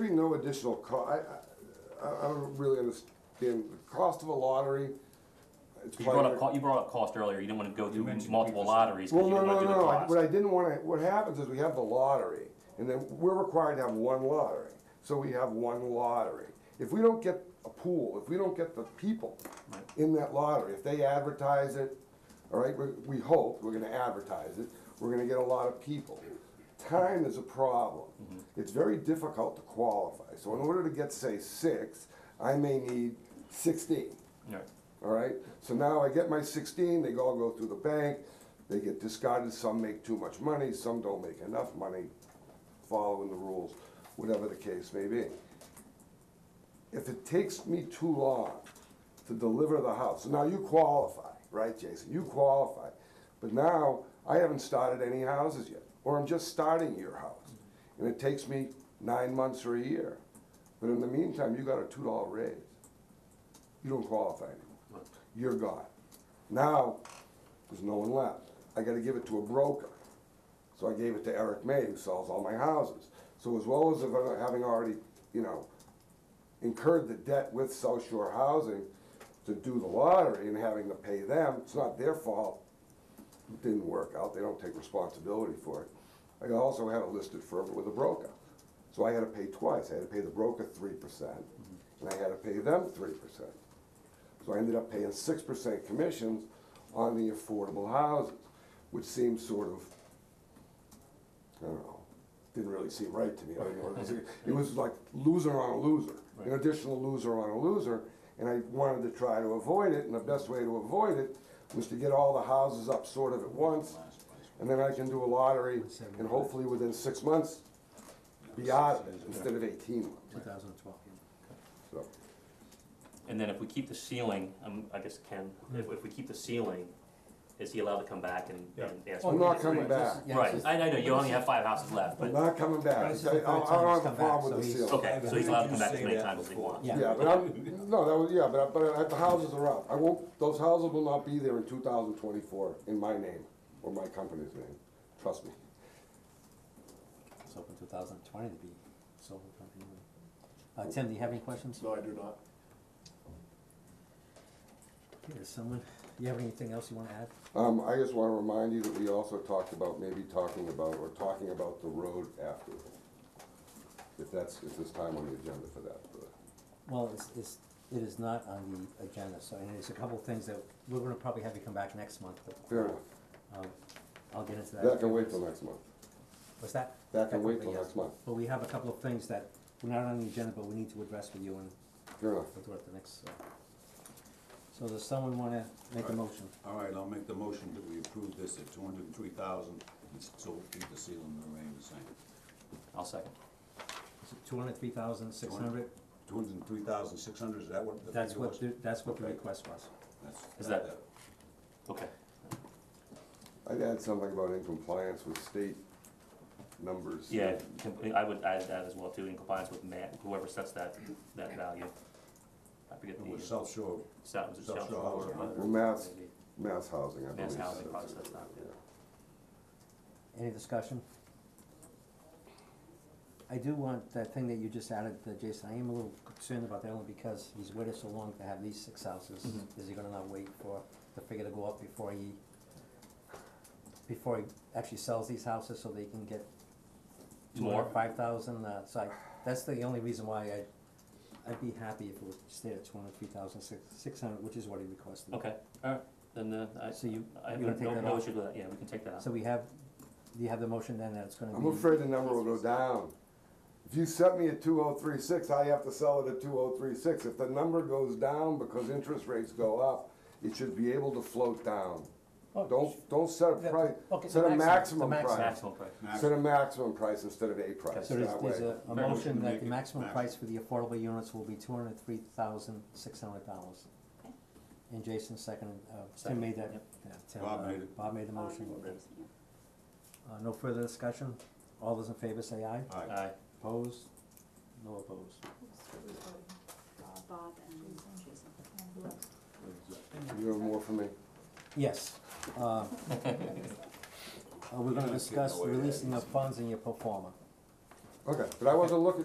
really no additional co, I, I, I don't really understand, the cost of a lottery, it's You brought probably. up, co- you brought up cost earlier, you didn't wanna go through mentioned multiple 3%. lotteries, because Well, you no, didn't no, wanna do the no, I- what cost. I didn't wanna, what happens is we have the lottery, and then we're required to have one lottery, so we have one lottery. If we don't get a pool, if we don't get the people Right. in that lottery, if they advertise it, all right, we, we hope, we're gonna advertise it, we're gonna get a lot of people. Time is a problem. Mm-hmm. It's very difficult to qualify, so in order to get, say, six, I may need sixteen. Right. All right, so now I get my sixteen, they all go through the bank, they get discarded, some make too much money, some don't make enough money, following the rules, whatever the case may be. If it takes me too long to deliver the house, now you qualify, right, Jason, you qualify, but now I haven't started any houses yet, or I'm just starting your house, and it takes me nine months or a year, but in the meantime, you got a two dollar raise you don't qualify anymore. You're gone. Now, there's no one left. I gotta give it to a broker. So I gave it to Eric May, who sells all my houses. So as well as if I- having already, you know, incurred the debt with South Shore Housing to do the lottery and having to pay them, it's not their fault. It didn't work out. They don't take responsibility for it. I also had it listed for with a broker. So I had to pay twice. I had to pay the broker three percent and I had to pay them three percent. So I ended up paying six percent commissions on the affordable houses, which seemed sort of, I don't know, didn't really seem right to me. I don't know. It was- It was like loser on a loser, an additional loser on a loser, and I wanted to try to avoid it, and the best way to avoid it was to get all the houses up sort of at once, and then I can do a lottery, and hopefully within six months, be out of it, instead of eighteen months, 2012. so. And then if we keep the ceiling, um, I guess Ken, Hmm. if, if we keep the ceiling, is he allowed to come back and, Yeah. and ask? I'm for- not coming back. Oh, Right, I, I know, you only have five houses left, I'm but, not coming back. This is I, the I third I time don't he's have a come back, problem so with the he's- ceiles. okay, so he's allowed to come back as Heard you many say that times as he before. wants. Yeah. Yeah, but I'm, no, that was, yeah, but, I- but I- the houses are up. I won't, those houses will not be there in two thousand twenty-four in my name or my company's name. Trust me. It's open 2020 to be sold or something. Uh, Tim, do you have any questions? No, I do not. Is someone, do you have anything else you want to add? Um, I just wanna remind you that we also talked about maybe talking about or talking about the road afterward. If that's, if there's time on the agenda for that, but, Well, it's, it's, it is not on the agenda, so, and there's a couple of things that, we're gonna probably have you come back next month, but. fair enough. Um, I'll get into that. That can wait till next month. What's that? That can wait till Technically, yes. next month. But we have a couple of things that, we're not on the agenda, but we need to address with you and Fair enough. we'll do it at the next, uh, so does someone wanna make a motion? All right, I'll make the motion that we approve this at 203,000, and so keep the ceiling and remain the same. I'll second. Two hundred, three thousand, six hundred, 203,600, is that what the that's figure what, was? the- that's what the Okay. request was. That's- uh, Is that- Okay, I'd add something about in compliance with state numbers. yeah, com- I would add that as well too, in compliance with Matt, whoever sets that, that value. I forget It the, was South Shore, stat was it South South Shore Shore Housing, or- Well, Mass, Mass Housing, I believe. Mass Housing says process, it. not- Yeah. Any discussion? I do want that thing that you just added, uh, Jason, I am a little concerned about that only because he's waited so long to have these six houses. Is he gonna not wait for the figure to go up before he, before he actually sells these houses so they can get More? five thousand, uh, so I, that's the only reason why I, I'd be happy if it was stayed at two hundred, three thousand, six, six hundred, which is what he requested. Okay, alright, then, uh, I, So you- I have you no, wanna take no that no off? issue with that, yeah, we can take that out. So we have, do you have the motion then that it's gonna be? I'm afraid the number will go down. If you set me at two oh three six, I have to sell it at two oh three six. If the number goes down because interest rates go up, it should be able to float down. Oh, Don't, don't set a the- price, okay, set the a maximum, the maximum price. Maximum price. Set a maximum price instead of a price, So there's, that there's way. a, a Right. motion that Make the it maximum maximum. price for the affordable units will be two hundred and three thousand, six hundred dollars. Okay. And Jason seconded, uh, Tim Second, made that, yep. yeah, Tim, Bob uh, made it. Bob made the Um, motion. thanks, yeah. Uh, no further discussion, all those in favor say aye, All right, Aye, opposed, no opposed. Uh, Bob and Jason. You have more for me? Yes, uh, uh, we're You're not gonna getting discuss away with that releasing of easy. funds in your performer. Okay, but I wasn't looking